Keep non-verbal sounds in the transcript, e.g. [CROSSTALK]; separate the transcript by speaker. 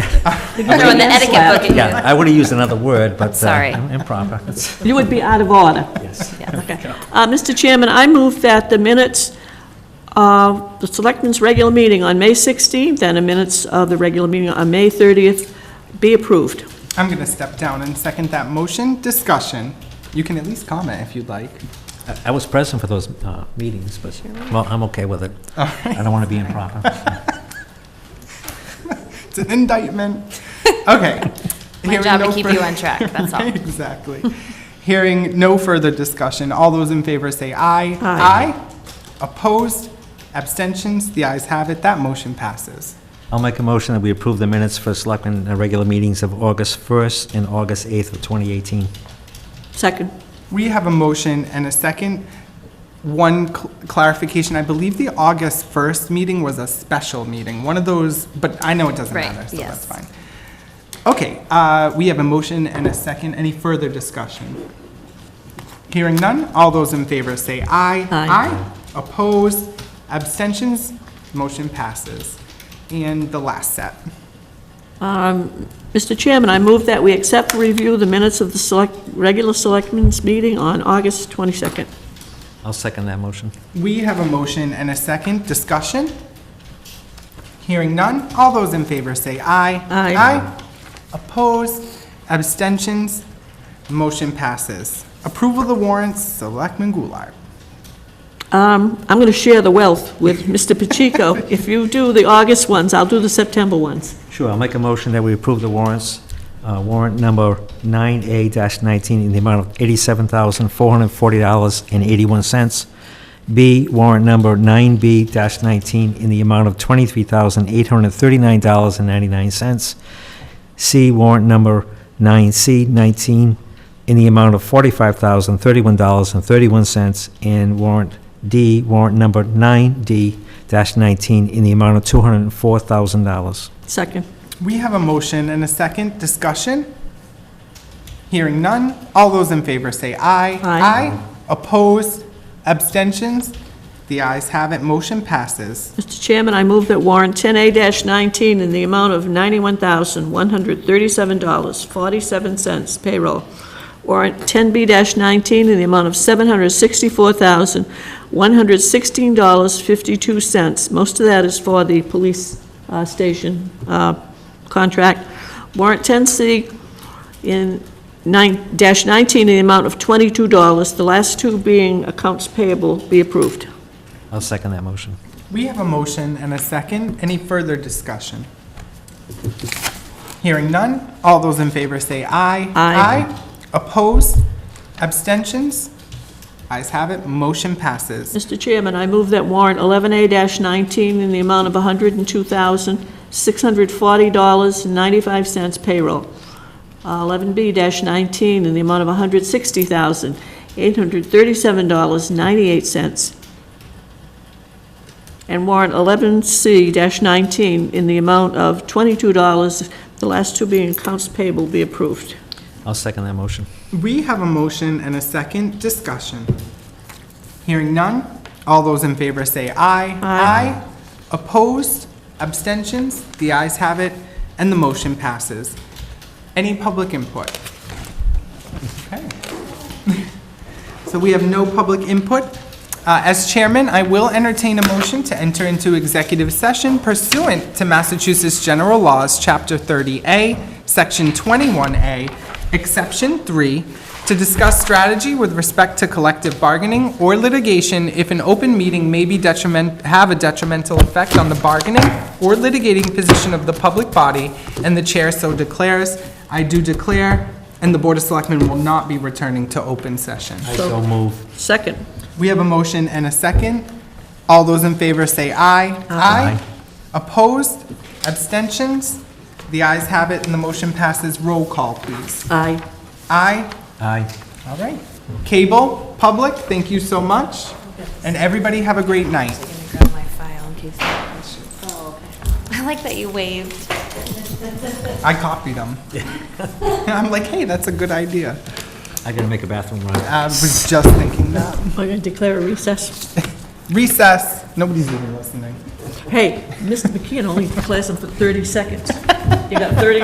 Speaker 1: Throwing the etiquette book at you.
Speaker 2: Yeah, I wouldn't use another word, but. uh,
Speaker 1: Sorry.
Speaker 2: Improper.
Speaker 3: You would be out of order.
Speaker 2: Yes.
Speaker 3: Okay. Uh, Mr. Chairman, I move that the minutes of the Selectmen's regular meeting on May 16th and the minutes of the regular meeting on May 30th be approved.
Speaker 4: I'm going to step down and second that motion. Discussion. You can at least comment if you'd like.
Speaker 2: I- I was present for those uh, meetings, but, well, I'm okay with it. I don't want to be improper.
Speaker 4: It's an
Speaker 1: [LAUGHS]
Speaker 4: indictment. Okay.
Speaker 1: My
Speaker 4: Hearing
Speaker 1: job to
Speaker 4: no
Speaker 1: keep
Speaker 4: fur-
Speaker 1: you on track, that's all.
Speaker 4: [LAUGHS] Right, Exactly. Hearing no further discussion, all those in favor say aye.
Speaker 3: Aye.
Speaker 4: Opposed? Abstentions? The ayes have it. That motion passes.
Speaker 2: I'll make a motion that we approve the minutes for selectmen uh, regular meetings of August 1st and August 8th of 2018.
Speaker 3: Second.
Speaker 4: We have a motion and a second. One cl- clarification, I believe the August 1st meeting was a special meeting, one of those, but I know it doesn't
Speaker 1: Right,
Speaker 4: matter, so that's
Speaker 1: yes.
Speaker 4: fine. Okay, uh, we have a motion and a second. Any further discussion? Hearing none, all those in favor say aye.
Speaker 3: Aye.
Speaker 4: Opposed, abstentions, motion passes. And the last set.
Speaker 3: Mr. Chairman, I move that we accept for review the minutes of the select, regular Selectmen's meeting on August 22nd.
Speaker 2: I'll second that motion.
Speaker 4: We have a motion and a second. Discussion? Hearing none. All those in favor say aye.
Speaker 3: Aye.
Speaker 4: Opposed? Abstentions? Motion passes. Approval of the warrants, Selectman Goulart.
Speaker 3: Um, I'm going to share the wealth with Mr. [LAUGHS] Pacheco. If you do the August ones, I'll do the September ones.
Speaker 2: Sure, I'll make a motion that we approve the warrants, uh, warrant number 9A-19 in the amount of $87,440.81. B, warrant number 9B-19 in the amount of $23,839.99. C, warrant number 9C-19 in the amount of $45,031.31. And warrant D, warrant number 9D-19 in the amount of $204,000.
Speaker 3: Second.
Speaker 4: We have a motion and a second. Discussion? Hearing none. All those in favor say aye.
Speaker 3: Aye.
Speaker 4: Opposed? Abstentions? The ayes have it. Motion passes.
Speaker 3: Mr. Chairman, I move that warrant 10A-19 in the amount of $91,137.47 payroll. Warrant 10B-19 in the amount of $764,116.52. Most of that is for the police uh, station uh, contract. Warrant 10C in nine dash 19 in the amount of $22, the last two being accounts payable, be approved.
Speaker 2: I'll second that motion.
Speaker 4: We have a motion and a second. Any further discussion? Hearing none. All those in favor say aye.
Speaker 3: Aye.
Speaker 4: Opposed? Abstentions? Ayes have it. Motion passes.
Speaker 3: Mr. Chairman, I move that warrant 11A-19 in the amount of $102,640.95 payroll. Uh, 11B-19 in the amount of $160,837.98. And warrant 11C-19 in the amount of $22, the last two being accounts payable, be approved.
Speaker 2: I'll second that motion.
Speaker 4: We have a motion and a second. Discussion. Hearing none. All those in favor say aye. Aye. Opposed? Abstentions? The ayes have it, and the motion passes. Any public input? Okay. So we have no public input. Uh, As chairman, I will entertain a motion to enter into executive session pursuant to Massachusetts General Laws, Chapter 30A, Section 21A, Exception 3, to discuss strategy with respect to collective bargaining or litigation if an open meeting may be detriment, have a detrimental effect on the bargaining or litigating position of the public body, and the chair so declares. I do declare, and the Board of Selectmen will not be returning to open session.
Speaker 2: I so move.
Speaker 3: Second.
Speaker 4: We have a motion and a second. All those in favor say aye. Aye. Opposed? Abstentions? The ayes have it, and the motion passes. Roll call, please.
Speaker 3: Aye.
Speaker 4: Aye.
Speaker 2: Aye.
Speaker 4: All right. Cable, public, thank you so much. And everybody have a great night.
Speaker 1: gonna grab my file in case. I like that you waved.
Speaker 4: I copied them. [LAUGHS] I'm like, hey, that's a good idea.
Speaker 2: I gotta make a bathroom run.
Speaker 4: I was just thinking that.
Speaker 3: We're going to declare a recess.
Speaker 4: Recess. Nobody's even listening.
Speaker 3: Hey, Mr. McKeon only lasted for 30 seconds. You got 30